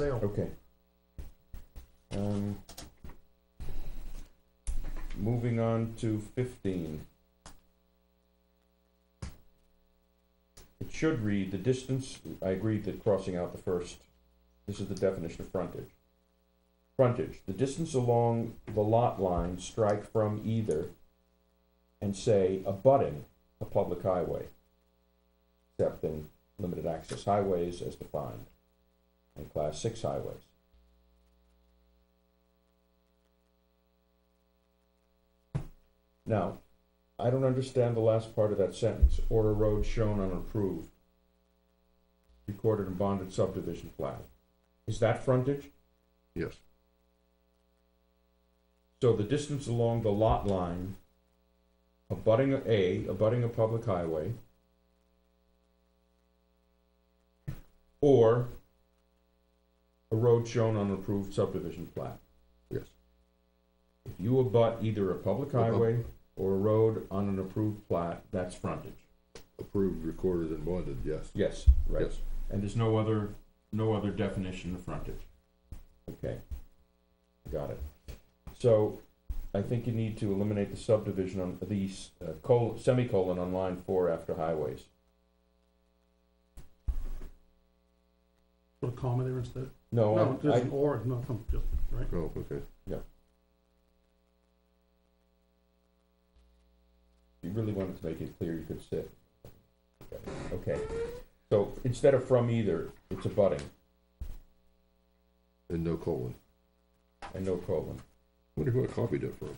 sale. Okay. Um, moving on to fifteen. It should read the distance, I agree that crossing out the first, this is the definition of frontage. Frontage, the distance along the lot line strike from either and say abutting a public highway. Except in limited access highways as defined and class six highways. Now, I don't understand the last part of that sentence, or a road shown on approved, recorded and bonded subdivision plat. Is that frontage? Yes. So the distance along the lot line abutting a- a, abutting a public highway, or a road shown on approved subdivision plat. Yes. If you abut either a public Uh-huh. highway or a road on an approved plat, that's frontage. Approved, recorded, and bonded, yes. Yes, right. Yes. And there's no other, no other definition of frontage. Okay. Got it. So I think you need to eliminate the subdivision on these, uh, col, semicolon on line four after highways. Put a comma there instead? No, No, Oh, I- there's I, an or, no, come, just, right? Oh, okay. if you really wanted to make it clear, you could sit. Okay, so instead of from either, it's abutting And no colon. and no colon. Wonder who I copied it from?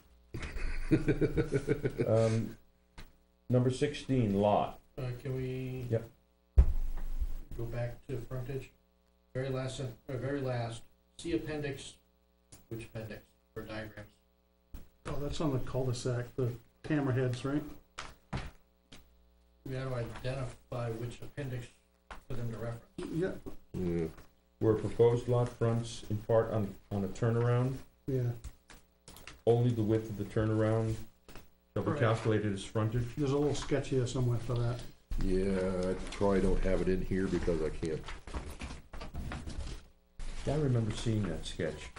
Um, number sixteen, lot. Uh, can we? Yep. Go back to frontage, very last, sen- uh, very last, see appendix, which appendix for diagrams? Oh, that's on the cul-de-sac, the hammerheads, right? We gotta identify which appendix for them to reference. Yeah, Yeah, Where proposed lot fronts in part on, on a turnaround, yeah, only the width of the turnaround shall be Correct. calculated as frontage. there's a little sketch here somewhere for that. yeah, I probably don't have it in here because I can't. I remember seeing that sketch,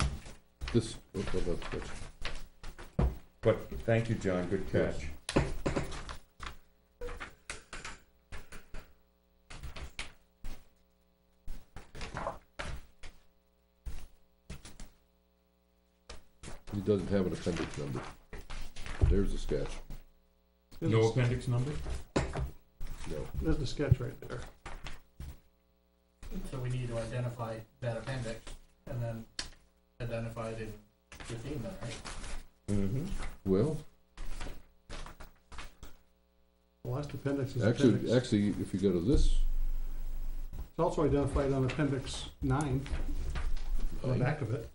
This, oh, oh, that's- that's- oh. but thank you, John, good catch. it doesn't have an appendix number. There's the sketch. There's No a- appendix number? No, There's the sketch right there. So we need to identify that appendix and then identify it in fifteen then, right? Mm-hmm. well, The last appendix is appendix. actually, It's actually, if you go to this, also identified on appendix nine, on the Nine? back of it.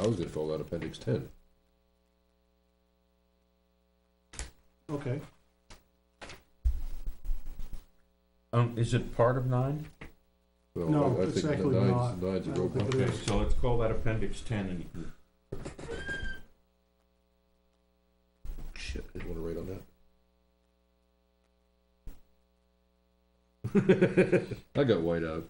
I was gonna call that appendix ten. Okay, Um, is it part of nine? Well, No, I- I it's think the actually nines- not. Nines I don't are broken. think it Okay, is. so let's call that appendix ten and you can Shit, I didn't wanna write on that. I got white out.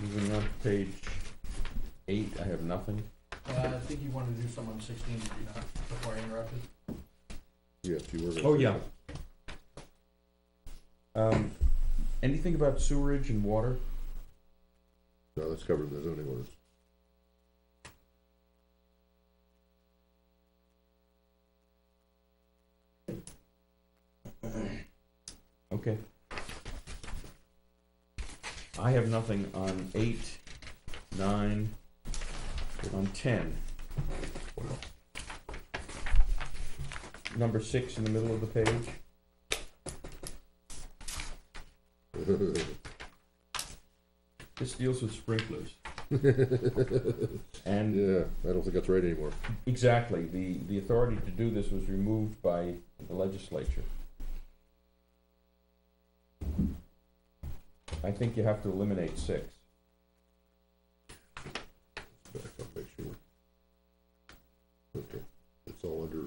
Moving on to page eight, I have nothing. Uh, I think you wanted to do some on sixteen, did you not, before I interrupted? Yes, you were. gonna Oh, say yeah. that. Um, anything about sewerage and water? No, that's covered in the zoning orders. Okay. I have nothing on eight, nine, on ten. Number six in the middle of the page, this deals with sprinklers. And Yeah, I don't think that's right anymore. Exactly. The, the authority to do this was removed by the legislature. I think you have to eliminate six. Back up, make sure. Okay, it's all under